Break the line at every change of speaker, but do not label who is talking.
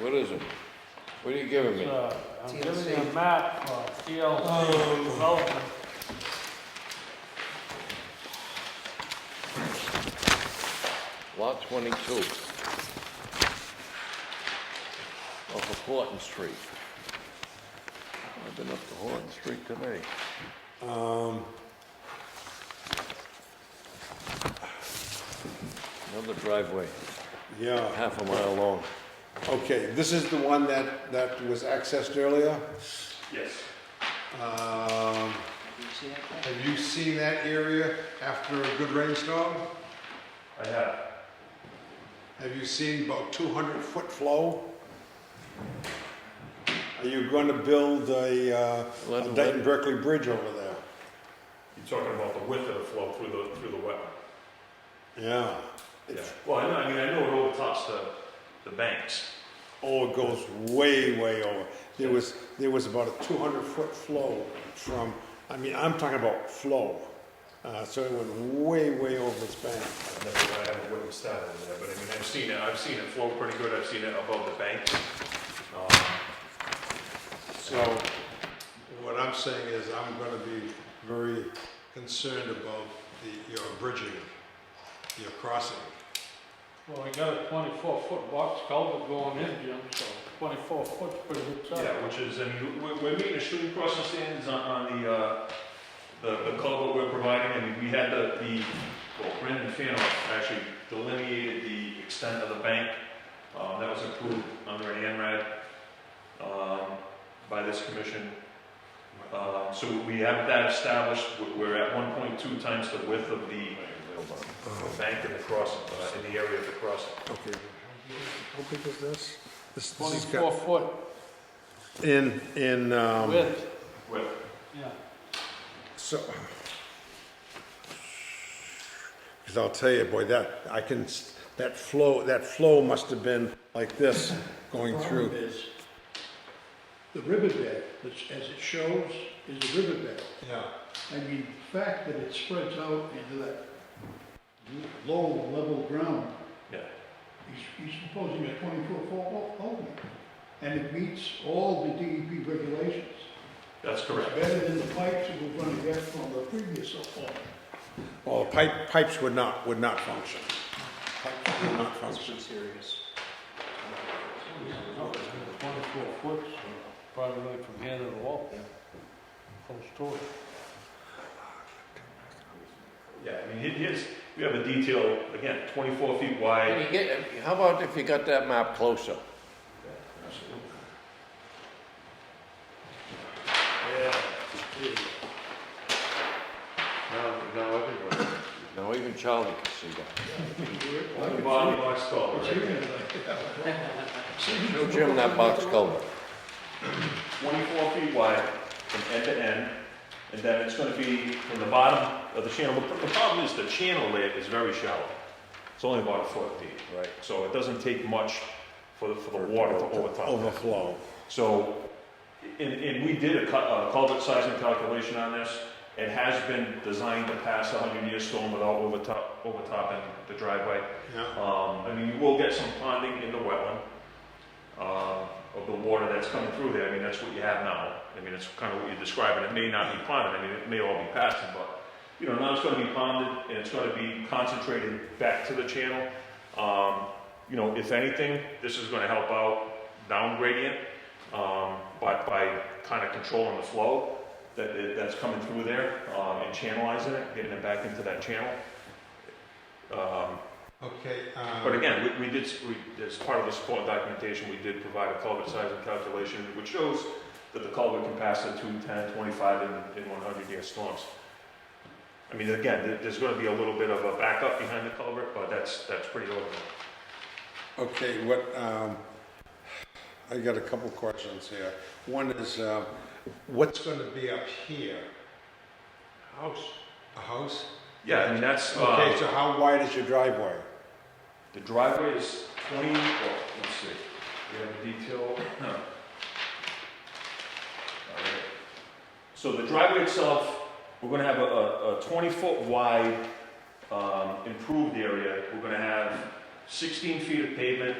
What is it? What are you giving me?
Uh, I'm giving you a
TLC.
map for TLC development.
Lot twenty-two. Off of Horton Street. I've been up to Horton Street today. Um. Another driveway,
Yeah,
half a mile long.
okay, this is the one that, that was accessed earlier.
Yes.
Um,
See that?
Have you seen that area after a good rainstorm?
I have.
Have you seen about 200-foot flow? Are you going to build a uh,
Let-
a
let-
Dayton Berkeley Bridge over there?
You're talking about the width of the flow through the, through the wetland.
Yeah.
Yeah. Well, I know, I mean, I know it overtops the, the banks.
Oh, it goes way, way over. There was, there was about a 200-foot flow from, I mean, I'm talking about flow. Uh, So it went way, way over its bank.
I've never, I haven't witnessed that over there, but I mean, I've seen it, I've seen it flow pretty good, I've seen it above the bank. Um,
So what I'm saying is I'm going to be very concerned about the, your bridging, your crossing.
Well, we got a twenty-four foot box culvert going in, Jim, so twenty-four foot's pretty good size.
Yeah, which is, I mean, we're, we're meeting the shooting crossing standards on, on the, uh, the, the culvert we're providing, I mean, we had the, the, well, Brendan Fanoff actually delineated the extent of the bank, um, that was approved under an ANRAD, um, by this commission. Um, so we have that established, We're- we're at one point two times the width of the the bank in the crossing, uh, in the area of the crossing.
Okay. How big is this? This, this has
Twenty-four
got,
foot
in, in, um,
width,
Width.
yeah.
so. Because I'll tell you, boy, that, I can, s- that flow, that flow must have been like this going
problem
through.
is, the riverbed, that's- as it shows, is the riverbed.
Yeah.
I mean, the fact that it spreads out into that low level ground,
Yeah,
he's, he's proposing a twenty-foot foot opening. And it meets all the DEP regulations.
that's
It's
correct.
better than the pipes that we're gonna get from the previous opening.
Well, the pipe, pipes would not, would not function. Pipes would not function.
serious.
Twenty-four foot, so probably from here to the wall. Close to it.
Yeah, I mean, he- here's, we have a detail, again, 24 feet wide.
Can you get, how about if you got that map closer?
Yeah. Now, now everybody.
Now even Charlie can see that.
The body box culvert, right?
Show Jim that box culvert.
24 feet wide from end to end, and then it's gonna be from the bottom of the channel. The the problem is the channel layer is very shallow. It's only about a foot deep.
Right.
So it doesn't take much for, the- for the water to overtop. that.
Overflow.
So, and, and we did a cu- a culvert sizing calculation on this. It has been designed to pass a hundred-year storm without overtop, overtopping the driveway.
Yeah.
Um, I mean, you will get some ponding in the wetland, um, of the water that's coming through there. I mean, that's what you have now. I mean, that's kind of what you're describing. It may not be ponded, I mean, it may all be passing, but, you know, now it's gonna be ponded and it's gonna be concentrated back to the channel. Um, you know, if anything, this is gonna help out down gradient, um, by, by kind of controlling the flow that, that- that's coming through there, um, and channelizing it, getting it back into that channel. Um,
Okay,
but
um,
again, we, we did, s- we, as part of the support documentation, we did provide a culvert size and calculation, which shows that the culvert can pass at 2, 10, 25, and, and 100 year storms. I mean, again, there- there's gonna be a little bit of a backup behind the culvert, but that's, that's pretty low.
okay, what, um, I got a couple questions here. One is, uh, what's gonna be up here?
House.
A house?
Yeah, I mean, that's,
Okay,
uh,
so how wide is your driveway?
the driveway is 20, well, let's see, we have a detail. huh. All right. So the driveway itself, we're gonna have a, a, a 20-foot wide um, improved area, we're gonna have 16 feet of pavement,